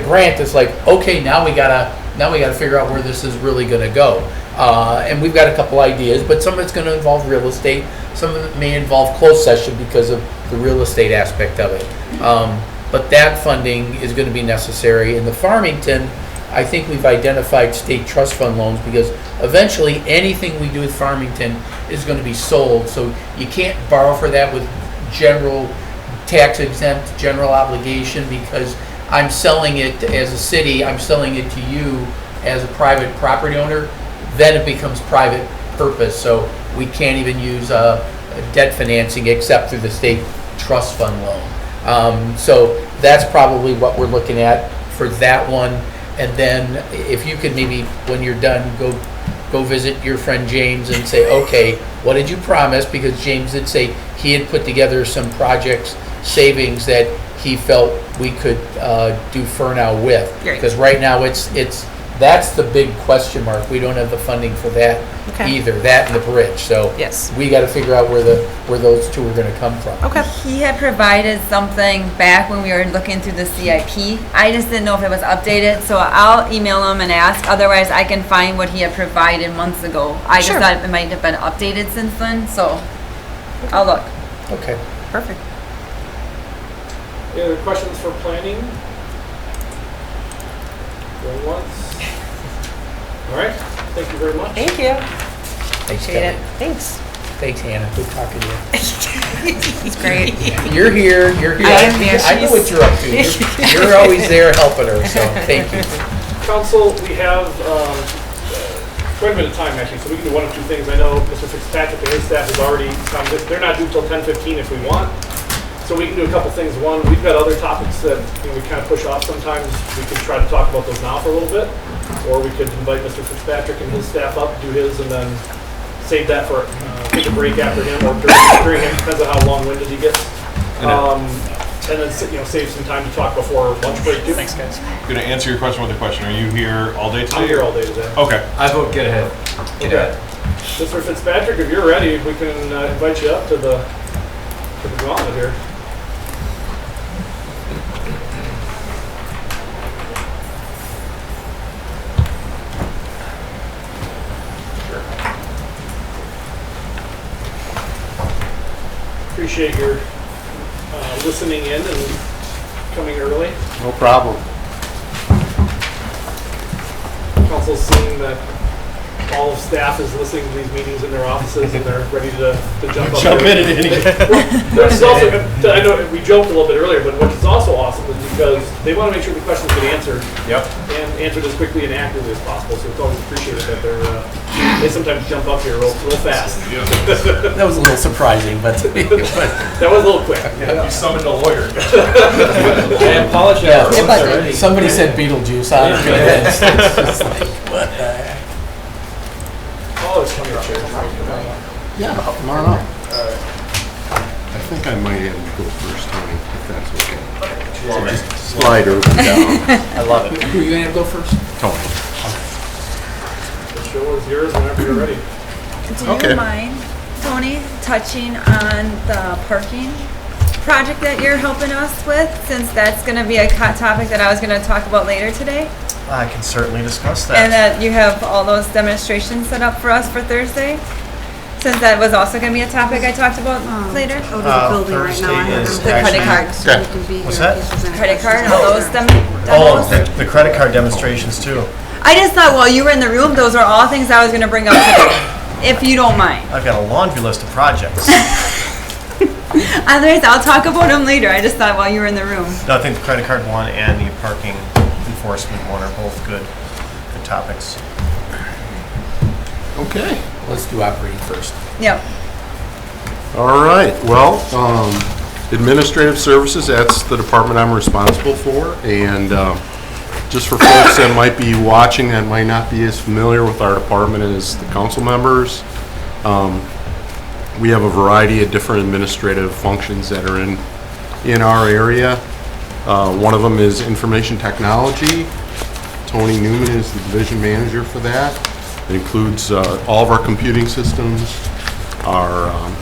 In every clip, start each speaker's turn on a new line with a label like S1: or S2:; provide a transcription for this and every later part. S1: grant, it's like, okay, now we gotta, now we gotta figure out where this is really gonna go. Uh, and we've got a couple ideas, but some of it's gonna involve real estate, some of it may involve closed session because of the real estate aspect of it. Um, but that funding is gonna be necessary. And the Farmington, I think we've identified state trust fund loans because eventually anything we do with Farmington is gonna be sold. So you can't borrow for that with general tax exempt general obligation because I'm selling it as a city, I'm selling it to you as a private property owner, then it becomes private purpose. So we can't even use uh, debt financing except through the state trust fund loan. Um, So that's probably what we're looking at for that one. And then if you could maybe, when you're done, go go visit your friend James and say, okay, what did you promise? Because James did say he had put together some projects, savings that he felt we could uh, do Furnow with.
S2: Great.
S1: Because right now, it's, it's, that's the big question mark. We don't have the funding for that
S2: Okay.
S1: either, that and the bridge. So
S2: Yes.
S1: we got to figure out where the, where those two are going to come from.
S2: Okay.
S3: He had provided something back when we were looking through the CIP. I just didn't know if it was updated, so I'll email him and ask. Otherwise, I can find what he had provided months ago. I just
S2: Sure.
S3: thought it might have been updated since then, so I'll look.
S1: Okay.
S2: Perfect.
S4: Any other questions for planning? Going once? All right, thank you very much.
S2: Thank you.
S1: Thanks, Kelly.
S3: Appreciate
S2: Thanks.
S1: Thanks, Hannah. Good talking to you.
S3: It's great.
S1: You're here, you're here.
S2: I am here.
S1: I know what you're up to. You're- You're always there helping her, so thank you.
S4: Council, we have um, uh, quite a bit of time, actually, so we can do one of two things. I know Mr. Fitzpatrick and his staff is already, um, they're not due till 10:15 if we want, so we can do a couple things. One, we've got other topics that, you know, we kind of push off sometimes. We could try to talk about those now for a little bit, or we could invite Mr. Fitzpatrick and his staff up, do his, and then save that for, uh, take a break after him or during- during him, depends on how long-winded he gets. Um, And then, you know, save some time to talk before lunch break, too. Thanks, guys.
S5: Gonna answer your question with a question. Are you here all day today?
S4: I'm here all day today.
S5: Okay.
S6: I vote get ahead. Get
S4: Okay. Mr. Fitzpatrick, if you're ready, we can uh, invite you up to the, to the gauntlet here. Appreciate your uh, listening in and coming early.
S6: No problem.
S4: Council's seeing that all of staff is listening to these meetings in their offices and they're ready to, to jump up.
S5: Jump
S4: there.
S5: in at any.
S4: This is also, I know we joked a little bit earlier, but what's also awesome is because they want to make sure the questions get answered
S5: Yep.
S4: and answered as quickly and accurately as possible. So it's always appreciated that they're, uh, they sometimes jump up here real, real fast.
S1: That was a little surprising, but,
S4: That was a little quick.
S5: You summoned a lawyer.
S6: I apologize.
S1: yeah. Somebody said Beetlejuice, I don't know. It's just like, what the heck?
S4: Oh, it's coming up.
S7: Yeah, tomorrow night. I think I might have to go first, Tony, if that's okay. Slide over down,
S1: I love it. Who are you gonna go first?
S7: Tony.
S4: The show is yours whenever you're ready.
S3: Do
S7: Okay.
S3: you mind, Tony, touching on the parking project that you're helping us with? Since that's gonna be a hot topic that I was gonna talk about later today?
S8: I can certainly discuss
S3: And
S8: that.
S3: that you have all those demonstrations set up for us for Thursday? Since that was also gonna be a topic I talked about later?
S9: Oh,
S8: Uh,
S9: there's a building right now. I
S8: Thursday is
S9: haven't
S8: actually-
S9: been back, so we can be
S8: What's that?
S9: here if there's any
S3: Credit card and
S9: questions.
S3: all those dem-
S8: Oh,
S3: demos?
S8: the, the credit card demonstrations too.
S3: I just thought while you were in the room, those were all things I was gonna bring up today, if you don't mind.
S8: I've got a laundry list of projects.
S3: Otherwise, I'll talk about them later. I just thought while you were in the room.
S8: No, I think the credit card one and the parking enforcement one are both good, good topics.
S7: Okay.
S1: Let's do operating first.
S3: Yep.
S7: All right, well, um, administrative services, that's the department I'm responsible for, and um, just for folks that might be watching that might not be as familiar with our department as the council members, um, we have a variety of different administrative functions that are in, in our area. Uh, One of them is information technology. Tony Newman is the division manager for that. It includes uh, all of our computing systems, our um,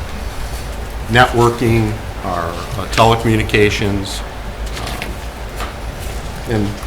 S7: networking, our uh, telecommunications, um, and